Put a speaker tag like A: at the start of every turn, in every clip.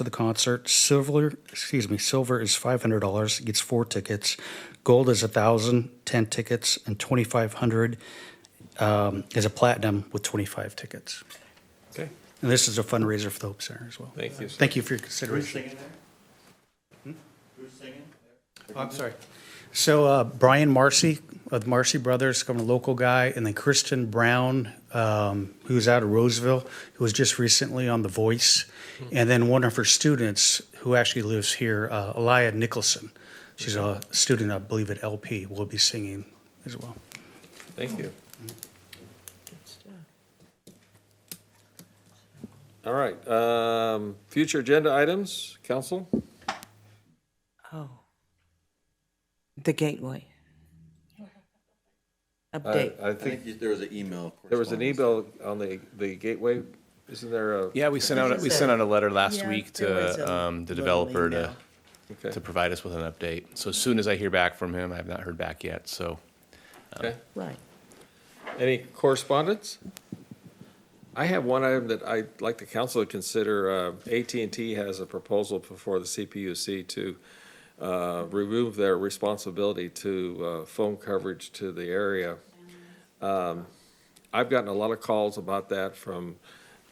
A: for the concert. Silver, excuse me, silver is five hundred dollars, gets four tickets. Gold is a thousand, ten tickets, and twenty-five hundred um, is a platinum with twenty-five tickets.
B: Okay,
A: And this is a fundraiser for the Hope Center as well.
B: thank you.
A: Thank you for your consideration. Hmm? Oh, I'm sorry. So uh, Brian Marcy of the Marcy Brothers, kind of a local guy, and then Kristen Brown, um, who's out of Roseville, who was just recently on The Voice, and then one of her students who actually lives here, uh, Elia Nicholson. She's a student, I believe, at LP. Will be singing as well.
B: Thank you. All right, um, future agenda items, council?
C: Oh. The Gateway.
B: I
C: Update.
B: I
D: I
B: think
D: think you- there was an email.
B: there was an
D: correspondence.
B: email on the, the gateway, isn't there a?
E: Yeah, we sent out, we
F: Because
E: sent
F: it-
E: out a letter last
F: Yeah,
E: week
F: there was
E: to
F: a
E: um, the
F: little
E: developer to,
F: email.
B: Okay,
E: to provide us with an update. So as soon as I hear back from him, I have not heard back yet, so.
B: okay.
F: Right.
B: Any correspondence? I have one item that I'd like the council to consider. Uh, AT&T has a proposal before the CPUC to uh, remove their responsibility to uh, phone coverage to the area. Um, I've gotten a lot of calls about that from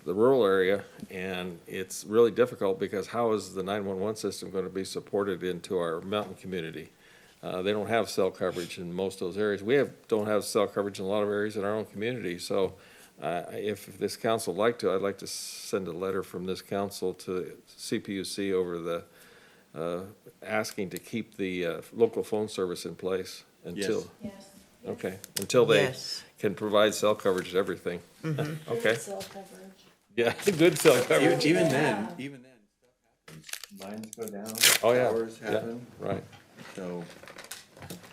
B: the rural area, and it's really difficult because how is the 911 system going to be supported into our mountain community? Uh, They don't have cell coverage in most of those areas. We have, don't have cell coverage in a lot of areas in our own community. So uh, if this council would like to, I'd like to send a letter from this council to CPUC over the, uh, asking to keep the uh, local phone service in place until. Yes. Okay, until they
C: Yes.
B: can provide cell coverage to everything. Okay. Yeah, good cell coverage,
D: Even then, even then, stuff happens. Lines go down.
B: Oh, yeah.
D: Towers
B: Yeah.
D: happen,
B: right.
D: so.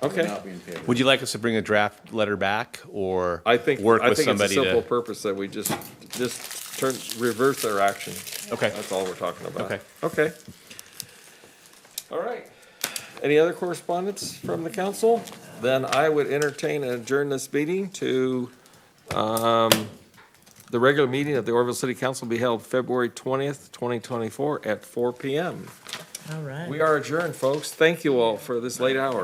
D: we're
B: Okay.
D: Not being favored.
E: Would you like us to bring a draft letter back or?
B: I think,
E: Work
B: I
E: with
B: think it's a
E: somebody
B: simple
E: to?
B: purpose that we just, just turn, reverse their action.
E: Okay.
B: That's all we're talking about.
E: Okay.
B: Okay. All right. Any other correspondence from the council? Then I would entertain and adjourn this meeting to, um, the regular meeting of the Orville City Council be held February twentieth, twenty twenty-four at four P M.
C: All right.
B: We are adjourned, folks. Thank you all for this late hour.